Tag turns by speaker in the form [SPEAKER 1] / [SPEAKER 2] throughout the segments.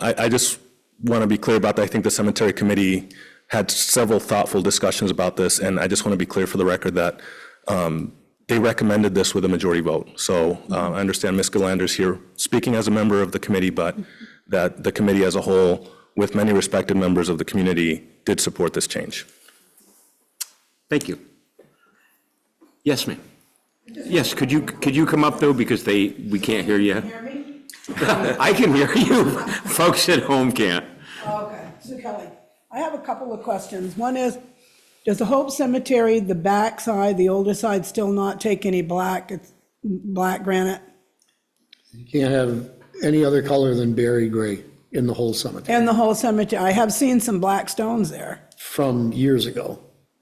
[SPEAKER 1] I, I just want to be clear about that. I think the cemetery committee had several thoughtful discussions about this, and I just want to be clear for the record that um, they recommended this with a majority vote. So uh, I understand Ms. Galander's here speaking as a member of the committee, but that the committee as a whole, with many respected members of the community, did support this change.
[SPEAKER 2] Thank you. Yes, ma'am. Yes, could you, could you come up though, because they, we can't hear you.
[SPEAKER 3] Hear me?
[SPEAKER 2] I can hear you, folks at home can't.
[SPEAKER 3] Oh, Okay, Sue Kelly. I have a couple of questions. One is, does the Hope Cemetery, the back side, the older side, still not take any black, it's black granite?
[SPEAKER 4] You can't have any other color than berry gray in the whole cemetery
[SPEAKER 3] And the whole cemetery, I have seen some black stones there.
[SPEAKER 4] from years ago,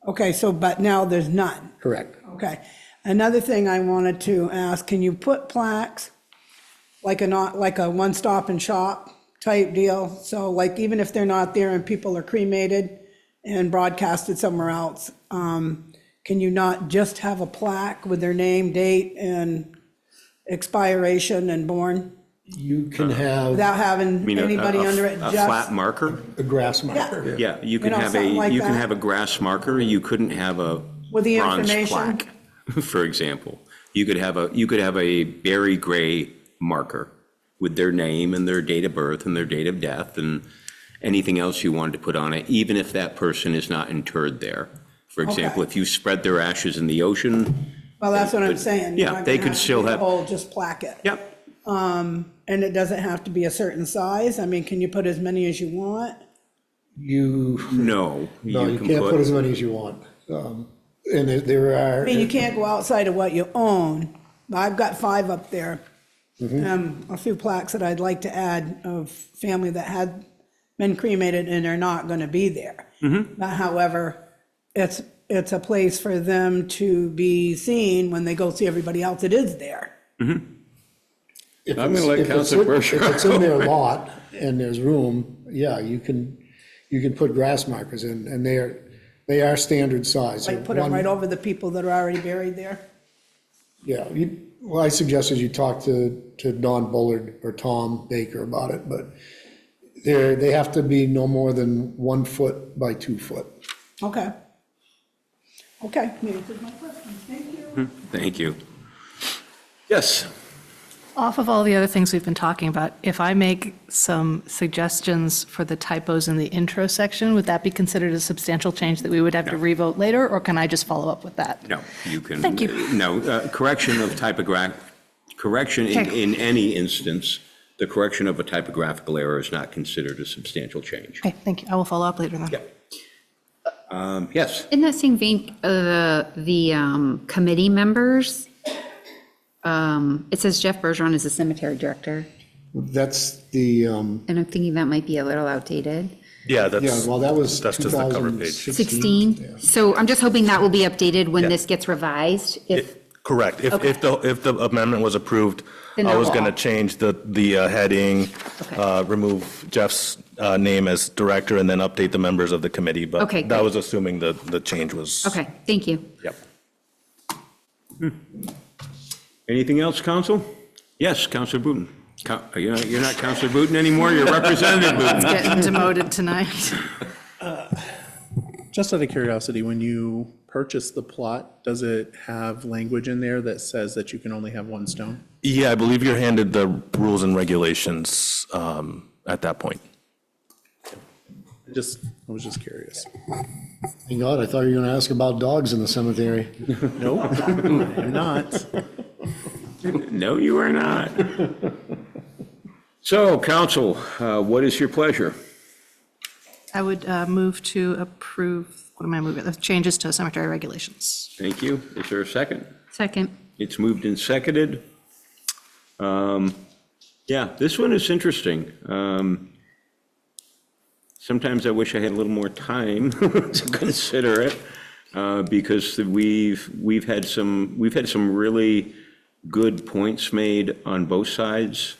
[SPEAKER 3] Okay, so, but now there's none.
[SPEAKER 4] correct?
[SPEAKER 3] Okay. Another thing I wanted to ask, can you put plaques, like a not, like a one-stop and shop type deal? So like, even if they're not there and people are cremated and broadcasted somewhere else, um, can you not just have a plaque with their name, date, and expiration and born,
[SPEAKER 4] You can have
[SPEAKER 3] without
[SPEAKER 2] I
[SPEAKER 3] having
[SPEAKER 2] mean, a- a-
[SPEAKER 3] anybody
[SPEAKER 2] a-
[SPEAKER 3] under it,
[SPEAKER 2] A flat
[SPEAKER 3] just,
[SPEAKER 2] marker?
[SPEAKER 4] a grass marker.
[SPEAKER 2] Yeah, you
[SPEAKER 3] You
[SPEAKER 2] can
[SPEAKER 3] know,
[SPEAKER 2] have
[SPEAKER 3] something
[SPEAKER 2] a,
[SPEAKER 3] like
[SPEAKER 2] you can
[SPEAKER 3] that.
[SPEAKER 2] have a grass marker, you couldn't have a
[SPEAKER 3] With the
[SPEAKER 2] bronze
[SPEAKER 3] information.
[SPEAKER 2] plaque, for example. You could have a, you could have a berry gray marker with their name and their date of birth and their date of death and anything else you wanted to put on it, even if that person is not interred there. For example,
[SPEAKER 3] Okay.
[SPEAKER 2] if you spread their ashes in the ocean,
[SPEAKER 3] well, that's what I'm
[SPEAKER 2] could-
[SPEAKER 3] saying.
[SPEAKER 2] yeah,
[SPEAKER 3] You're not
[SPEAKER 2] they
[SPEAKER 3] gonna
[SPEAKER 2] could
[SPEAKER 3] have to
[SPEAKER 2] still
[SPEAKER 3] do the
[SPEAKER 2] have-
[SPEAKER 3] Whole, just plaque it.
[SPEAKER 2] yep,
[SPEAKER 3] And it doesn't have to be a certain size? I mean, can you put as many as you want?
[SPEAKER 4] You,
[SPEAKER 2] no.
[SPEAKER 4] no, you
[SPEAKER 2] can
[SPEAKER 4] can't put as many as you want. Um, And there- there are.
[SPEAKER 3] I mean, you can't go outside of what you own. I've got five up there. Um, a few plaques that I'd like to add of family that had been cremated and are not gonna be there. But however, it's, it's a place for them to be seen when they go see everybody else that is there.
[SPEAKER 4] if
[SPEAKER 5] I'm gonna
[SPEAKER 4] it's-
[SPEAKER 5] let
[SPEAKER 4] if it's
[SPEAKER 5] Counselor
[SPEAKER 4] in-
[SPEAKER 5] Bergeron
[SPEAKER 4] If it's in their lot and there's room, yeah, you can, you can put grass markers in, and they are, they are standard size.
[SPEAKER 3] Like, put them
[SPEAKER 4] One-
[SPEAKER 3] right over the people that are already buried there.
[SPEAKER 4] Yeah, you, well, I suggested you talk to, to Don Bullard or Tom Baker about it, but they're, they have to be no more than one foot by two foot.
[SPEAKER 3] Okay. Okay, you answered my question. Thank you.
[SPEAKER 2] Thank you. Yes,
[SPEAKER 6] Off of all the other things we've been talking about, if I make some suggestions for the typos in the intro section, would that be considered a substantial change that we would have to revote later, or can I just follow up with that?
[SPEAKER 2] no, you can.
[SPEAKER 6] Thank you.
[SPEAKER 2] No, uh, correction of typograph, correction in,
[SPEAKER 6] Okay.
[SPEAKER 2] in any instance, the correction of a typographical error is not considered a substantial change.
[SPEAKER 6] Okay, thank you. I will follow up later then.
[SPEAKER 2] Yeah. Um, Yes,
[SPEAKER 7] In that same vein, uh, the, the um, committee members, um, it says Jeff Bergeron is the cemetery director,
[SPEAKER 4] That's the, um,
[SPEAKER 7] and I'm thinking that might be a little outdated.
[SPEAKER 1] Yeah,
[SPEAKER 4] yeah,
[SPEAKER 1] that's,
[SPEAKER 4] well, that was
[SPEAKER 1] that's just the cover page.
[SPEAKER 4] 2016.
[SPEAKER 7] 16, so I'm just hoping that will be updated when
[SPEAKER 1] Yeah.
[SPEAKER 7] this gets revised, if,
[SPEAKER 1] Correct. If, if the, if the amendment was approved,
[SPEAKER 7] Then
[SPEAKER 1] I was
[SPEAKER 7] that will-
[SPEAKER 1] going to change the, the uh, heading,
[SPEAKER 7] Okay.
[SPEAKER 1] uh, remove Jeff's uh, name as director, and then update the members of the committee. But
[SPEAKER 7] Okay,
[SPEAKER 1] that
[SPEAKER 7] great.
[SPEAKER 1] was assuming the, the change was.
[SPEAKER 7] okay, thank you.
[SPEAKER 1] Yep.
[SPEAKER 2] anything else, Council? Yes, Councilor Booton. Co- uh, You're not- you're not Councilor Booton anymore, you're Representative Booton.
[SPEAKER 6] Getting demoted tonight.
[SPEAKER 5] Just out of curiosity, when you purchase the plot, does it have language in there that says that you can only have one stone?
[SPEAKER 1] Yeah, I believe you're handed the rules and regulations um, at that point.
[SPEAKER 5] Just, I was just curious.
[SPEAKER 4] Thank God, I thought you were gonna ask about dogs in the cemetery.
[SPEAKER 5] No, I'm not.
[SPEAKER 2] No, you are not. So, Council, uh, what is your pleasure?
[SPEAKER 6] I would uh, move to approve, what am I moving, the changes to cemetery regulations.
[SPEAKER 2] Thank you. Is there a second?
[SPEAKER 7] Second,
[SPEAKER 2] It's moved and seconded. Um, Yeah, this one is interesting. Um, Sometimes I wish I had a little more time to consider it, uh, because we've, we've had some, we've had some really good points made on both sides.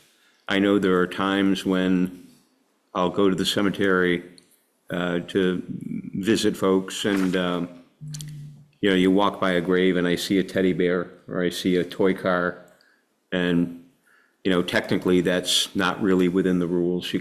[SPEAKER 2] I know there are times when I'll go to the cemetery uh, to visit folks, and, um, you know, you walk by a grave and I see a teddy bear or I see a toy car. And, you know, technically, that's not really within the rules. You